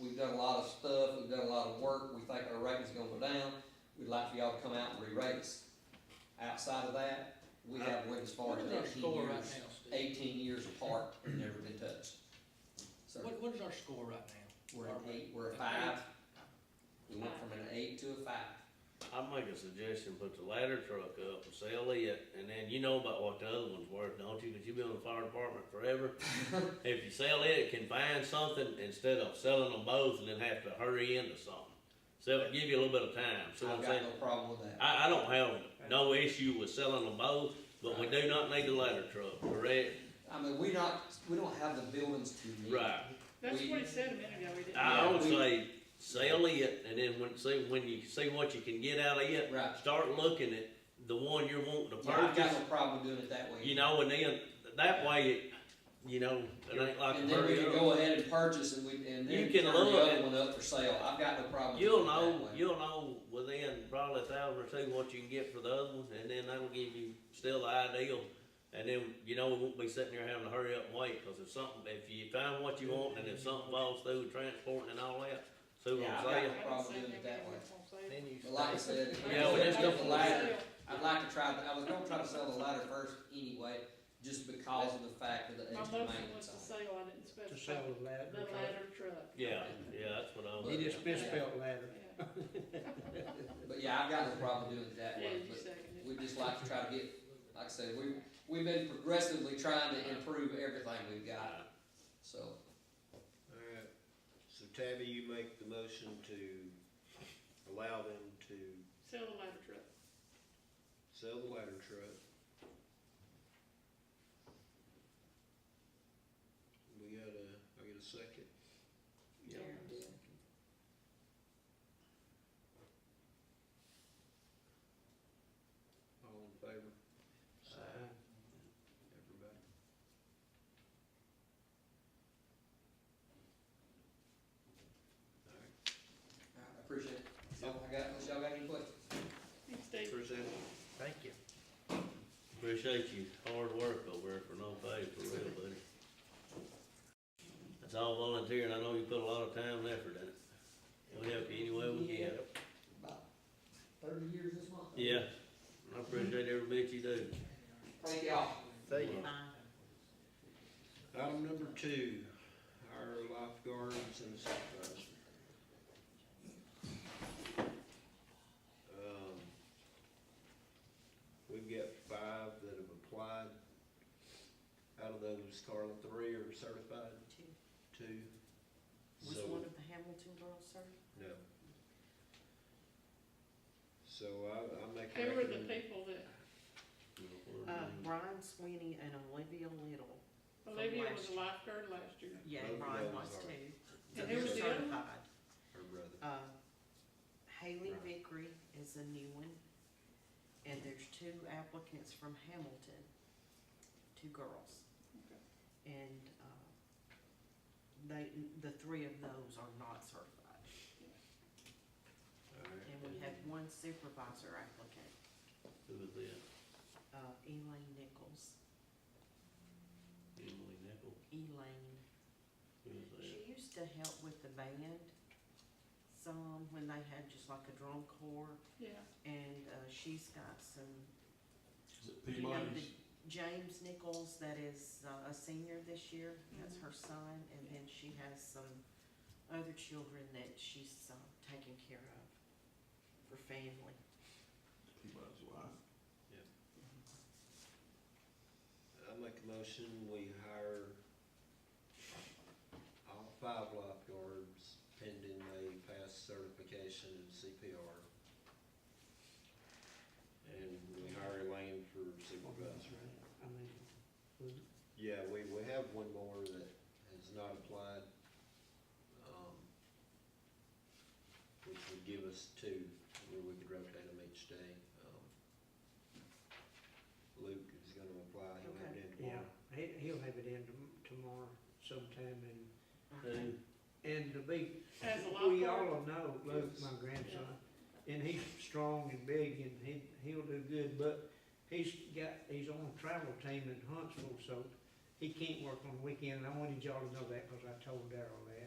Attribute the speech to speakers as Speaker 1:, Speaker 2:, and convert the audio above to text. Speaker 1: We've done a lot of stuff, we've done a lot of work, we think our rating's gonna go down, we'd like for y'all to come out and re-rate us. Outside of that, we haven't went as far
Speaker 2: What
Speaker 1: as
Speaker 2: is our
Speaker 1: eighteen
Speaker 2: score right
Speaker 1: years,
Speaker 2: now, Steve?
Speaker 1: eighteen years apart, and never been touched. So,
Speaker 2: What, what is our score right now?
Speaker 1: we're
Speaker 2: Are
Speaker 1: an
Speaker 2: we-
Speaker 1: eight, we're a five, we went from an eight to a five.
Speaker 3: I'd make a suggestion, put the ladder truck up and sell it, and then you know about what the other one's worth, don't you? Cause you've been in the fire department forever. If you sell it, can find something instead of selling them both and then have to hurry into something. Sell it, give you a little bit of time, see what
Speaker 1: I've
Speaker 3: I'm
Speaker 1: got
Speaker 3: saying?
Speaker 1: no problem with that.
Speaker 3: I, I don't have no issue with selling them both, but we do not need the ladder truck, correct?
Speaker 1: I mean, we not, we don't have the buildings to meet.
Speaker 3: Right.
Speaker 4: That's
Speaker 1: We-
Speaker 4: what he said a minute ago, we didn't.
Speaker 3: I would
Speaker 1: Yeah, we-
Speaker 3: say sell it and then when, see, when you see what you can get out of it,
Speaker 1: Right.
Speaker 3: start looking at the one you're wanting to
Speaker 1: Yeah, I've got
Speaker 3: purchase.
Speaker 1: no problem doing it that way.
Speaker 3: You know, and then, that way, it you know, it ain't like a
Speaker 1: And then we
Speaker 3: hurry
Speaker 1: can
Speaker 3: up.
Speaker 1: go ahead and purchase and we, and then
Speaker 3: You can
Speaker 1: turn the
Speaker 3: look
Speaker 1: other
Speaker 3: at-
Speaker 1: one up for sale. I've got no problem. doing
Speaker 3: You'll
Speaker 1: it that
Speaker 3: know,
Speaker 1: way.
Speaker 3: you'll know within probably a thousand or two what you can get for the other one, and then that'll give you still the ideal. And then, you know, we won't be sitting there having to hurry up and wait, cause if something, if you find what you want, and if something falls through with transporting and all that, see what
Speaker 1: Yeah,
Speaker 3: I'm
Speaker 1: I've got
Speaker 3: saying?
Speaker 1: no problem doing it that way.
Speaker 5: Then you
Speaker 1: But like I
Speaker 5: stay.
Speaker 1: said, if
Speaker 3: Yeah, well,
Speaker 1: we
Speaker 3: that's
Speaker 1: do the
Speaker 3: different.
Speaker 1: ladder, I'd like to try, the- I was gonna try to sell the ladder first anyway, just because of the fact of the
Speaker 4: My
Speaker 1: extra
Speaker 4: motion
Speaker 1: maintenance
Speaker 4: was to
Speaker 1: on it.
Speaker 4: sell, I didn't
Speaker 5: To
Speaker 4: specify
Speaker 5: sell the
Speaker 4: the
Speaker 5: ladder.
Speaker 4: ladder truck.
Speaker 3: Yeah, yeah, that's what I
Speaker 5: He
Speaker 3: was,
Speaker 5: just misspelled ladder.
Speaker 4: Yeah,
Speaker 1: But yeah, I've got no problem doing it that
Speaker 4: Yeah,
Speaker 1: way,
Speaker 4: you
Speaker 1: but
Speaker 4: seconded it.
Speaker 1: we'd just like to try to get, like I said, we, we've been progressively trying to improve everything we've got, so.
Speaker 6: All right, so Tabby, you make the motion to allow them to
Speaker 4: Sell the ladder truck.
Speaker 6: sell the ladder truck. We got a, I get a second?
Speaker 4: Darren did.
Speaker 6: All in favor? Say aye. Everybody? All right,
Speaker 1: I appreciate it. So I got, y'all got any questions?
Speaker 4: He stayed.
Speaker 6: appreciate it.
Speaker 5: Thank you.
Speaker 3: appreciate you, hard work over there for no pay, for real, buddy. That's all volunteer, and I know you put a lot of time and effort in it. We'll help you any way we can.
Speaker 1: About thirty years this month.
Speaker 3: Yeah, I appreciate every bit you do.
Speaker 1: Thank y'all.
Speaker 6: Thank you. Item number two, our lifeguards and supervisor. Um, We've got five that have applied. Out of those, Carla, three are certified,
Speaker 7: Two.
Speaker 6: two.
Speaker 7: Was
Speaker 6: So-
Speaker 7: one of the Hamilton girls, sir?
Speaker 6: No. So I, I make.
Speaker 4: Who were the
Speaker 6: recommend-
Speaker 4: people that,
Speaker 7: Uh, Brian Sweeney and Olivia Little.
Speaker 4: Olivia was a
Speaker 7: last year.
Speaker 4: lifeguard last year.
Speaker 7: Yeah,
Speaker 6: Both of
Speaker 7: Brian
Speaker 6: those
Speaker 7: was
Speaker 6: are-
Speaker 7: too.
Speaker 4: And who was the other one?
Speaker 7: Certified.
Speaker 6: Her brother.
Speaker 7: Uh, Haley
Speaker 6: Right.
Speaker 7: Vickery is a new one. And there's two applicants from Hamilton, two girls.
Speaker 4: Okay.
Speaker 7: And, uh, they, the three of those are not certified.
Speaker 6: All right.
Speaker 7: And we have one supervisor applicant,
Speaker 3: Who was that?
Speaker 7: uh, Elaine Nichols.
Speaker 3: Emily Nichol.
Speaker 7: Elaine
Speaker 3: Who was that?
Speaker 7: She used to help with the band some when they had just like a drum corps,
Speaker 4: Yeah,
Speaker 7: and uh, she's got some.
Speaker 8: Is it
Speaker 7: you know,
Speaker 8: Peabody's?
Speaker 7: the James Nichols, that is uh, a senior this year, that's her son, and then she has some other children that she's uh, taking care of for family.
Speaker 8: Peabody's wife.
Speaker 6: I make a motion, we hire all five lifeguards pending they pass certification in CPR. And we hire Elaine for supervisor.
Speaker 5: I mean, we-
Speaker 6: Yeah, we, we have one more that has not applied, um, which would give us two, where we could rotate them each day. Um, Luke is gonna apply, he'll have it in tomorrow.
Speaker 5: yeah, he, he'll have it in tom- tomorrow sometime
Speaker 7: Okay.
Speaker 5: and, and to be,
Speaker 4: as a
Speaker 5: we
Speaker 4: lifeguard.
Speaker 5: all know, Luke, my grandson, and he's strong and big and he, he'll do good, but he's got, he's on a travel team in Huntsville, so he can't work on the weekend. And I wanted y'all to know that because I told Darrell that.